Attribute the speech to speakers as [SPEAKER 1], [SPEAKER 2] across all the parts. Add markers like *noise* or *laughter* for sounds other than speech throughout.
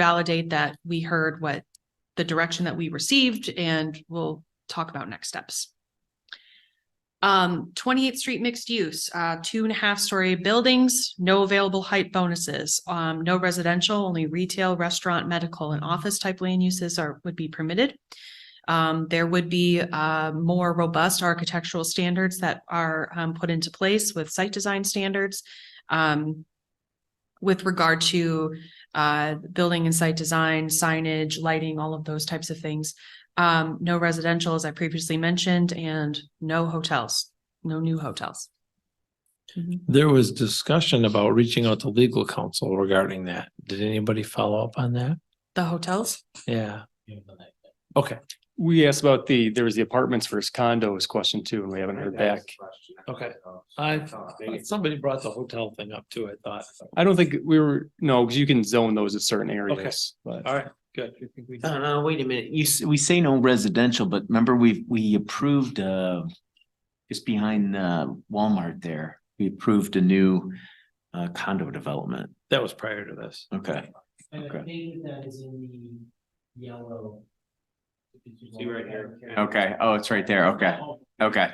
[SPEAKER 1] validate that we heard what the direction that we received and we'll talk about next steps. Um, Twenty-Eighth Street Mixed Use, uh, two and a half story buildings, no available height bonuses, um, no residential, only retail, restaurant, medical and office type land uses are, would be permitted. Um, there would be, uh, more robust architectural standards that are, um, put into place with site design standards. Um, with regard to, uh, building and site design, signage, lighting, all of those types of things. Um, no residential, as I previously mentioned, and no hotels, no new hotels. Mhm.
[SPEAKER 2] There was discussion about reaching out to legal counsel regarding that. Did anybody follow up on that?
[SPEAKER 1] The hotels?
[SPEAKER 2] Yeah.
[SPEAKER 3] We asked about the, there was the apartments versus condos question too, and we haven't heard back.
[SPEAKER 2] Okay.
[SPEAKER 4] Oh,
[SPEAKER 2] I, somebody brought the hotel thing up too, I thought.
[SPEAKER 3] I don't think we were, no, because you can zone those at certain areas, but
[SPEAKER 2] All right, good.
[SPEAKER 5] No, no, Uh, wait a minute. You, s- we say no residential, but remember we, we approved, uh, just behind, uh, Walmart there, we approved a new, uh, condo development.
[SPEAKER 2] That was prior to this.
[SPEAKER 5] Okay.
[SPEAKER 6] And I
[SPEAKER 5] Okay.
[SPEAKER 6] think that is in the yellow.
[SPEAKER 2] See right here.
[SPEAKER 5] Okay. Oh, it's right there. Okay. Okay.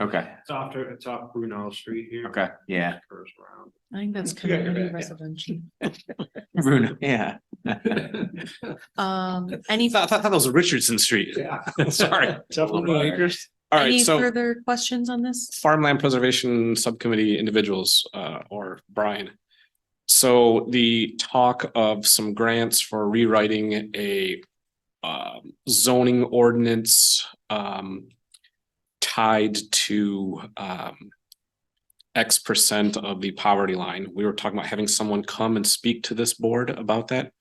[SPEAKER 5] Okay.
[SPEAKER 7] It's off, to- it's off Brunel Street here.
[SPEAKER 5] Okay. Yeah.
[SPEAKER 7] Curves around.
[SPEAKER 1] I think that's
[SPEAKER 2] You got your
[SPEAKER 1] community
[SPEAKER 2] back, yeah.
[SPEAKER 1] residential.
[SPEAKER 5] Bruno, *laughs* yeah.
[SPEAKER 1] Um,
[SPEAKER 2] *laughs*
[SPEAKER 1] any,
[SPEAKER 8] I thought that was Richardson Street.
[SPEAKER 7] *laughs* Yeah.
[SPEAKER 8] Sorry.
[SPEAKER 2] acres.
[SPEAKER 8] All
[SPEAKER 1] any
[SPEAKER 8] right, so
[SPEAKER 1] further questions on this?
[SPEAKER 8] farmland preservation subcommittee individuals, uh, or Brian. So the talk of some grants for rewriting a um, zoning ordinance, um, tied to, um, X percent of the poverty line. We were talking about having someone come and speak to this board about that.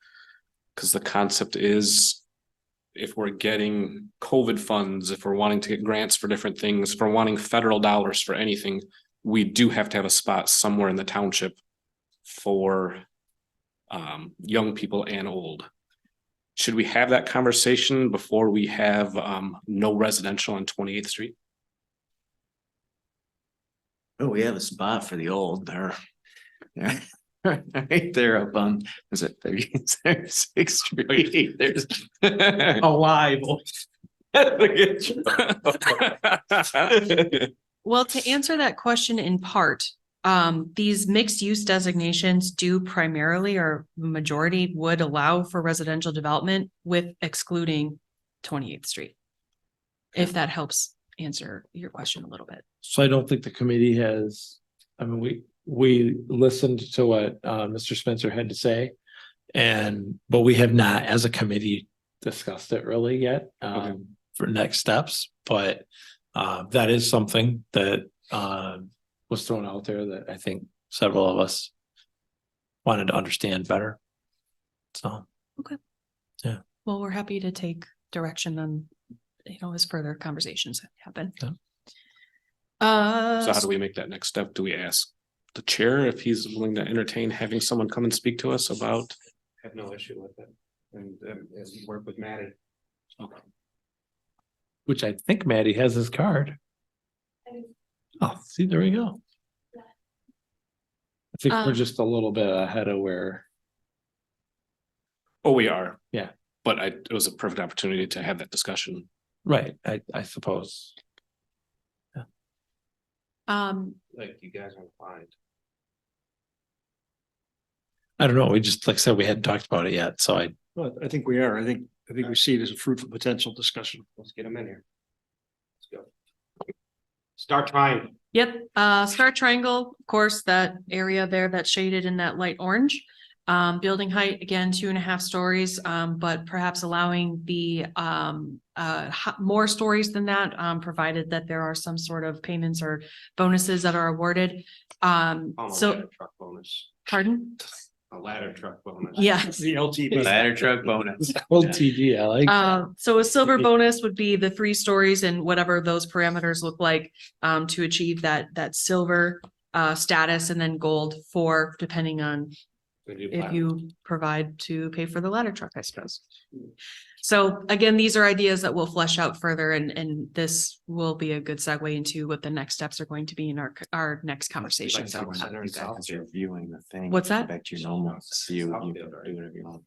[SPEAKER 8] Cause the concept is if we're getting COVID funds, if we're wanting to get grants for different things, if we're wanting federal dollars for anything, we do have to have a spot somewhere in the township for um, young people and old. Should we have that conversation before we have um, no residential on Twenty Eighth Street? *laughs*
[SPEAKER 5] Oh, we have a spot for the old there. *laughs* There. Right there up on, is it thirty, sixth street? *laughs* There's.
[SPEAKER 2] Alive.
[SPEAKER 1] Well, to answer that question in part, um, these mixed use designations do primarily or majority would allow for residential development with excluding Twenty-Eighth Street. If that helps answer your question a little bit.
[SPEAKER 2] So I don't think the committee has, I mean, we, we listened to what uh Mr. Spencer had to say. And, but we have not, as a committee, discussed it really yet, um, for next steps, but. Uh, that is something that uh was thrown out there that I think several of us. Wanted to understand better. So,
[SPEAKER 1] Well, we're happy to take direction on, you know, as further conversations happen.
[SPEAKER 2] Yeah.
[SPEAKER 1] Uh,
[SPEAKER 8] So how do we make that next step? Do we ask the chair if he's willing to entertain having someone come and speak to us about?
[SPEAKER 7] Have no issue with it. And, um, as you work with Maddie.
[SPEAKER 2] which I think Maddie has his card. Oh, see, there we go. I think we're
[SPEAKER 1] Um,
[SPEAKER 2] just a little bit ahead of where.
[SPEAKER 8] Oh, we are.
[SPEAKER 2] Yeah.
[SPEAKER 8] But I, it was a perfect opportunity to have that discussion.
[SPEAKER 2] Right, I, I suppose.
[SPEAKER 1] um,
[SPEAKER 7] Like you guys are fine.
[SPEAKER 2] I don't know, we just, like I said, we hadn't talked about it yet, so I,
[SPEAKER 4] Well, I think we are. I think, I think we see it as a fruitful potential discussion.
[SPEAKER 7] Let's get them in here. Let's go. Start time.
[SPEAKER 1] Yep, uh, Star Triangle, of course, that area there that's shaded in that light orange. Um, building height, again, two and a half stories, um, but perhaps allowing the, um, uh, ho- more stories than that, um, provided that there are some sort of payments or bonuses that are awarded. Um,
[SPEAKER 7] Oh, my
[SPEAKER 1] so,
[SPEAKER 7] ladder Truck bonus, *laughs*
[SPEAKER 1] pardon?
[SPEAKER 7] a ladder truck bonus.
[SPEAKER 1] Yeah.
[SPEAKER 4] The LT.
[SPEAKER 5] Ladder truck bonus.
[SPEAKER 2] old TD, I like.
[SPEAKER 1] Uh, so a silver
[SPEAKER 2] Mhm.
[SPEAKER 1] bonus would be the three stories and whatever those parameters look like um, to achieve that, that silver uh, status and then gold for depending on if you provide to pay for the ladder truck, I suppose. So again, these are ideas that we'll flesh out further and, and this will be a good segue into what the next steps are going to be in our, our next conversation. So. uh,
[SPEAKER 5] Reviewing the thing.
[SPEAKER 1] What's that?
[SPEAKER 5] Back to your normal, see you, you do whatever you want.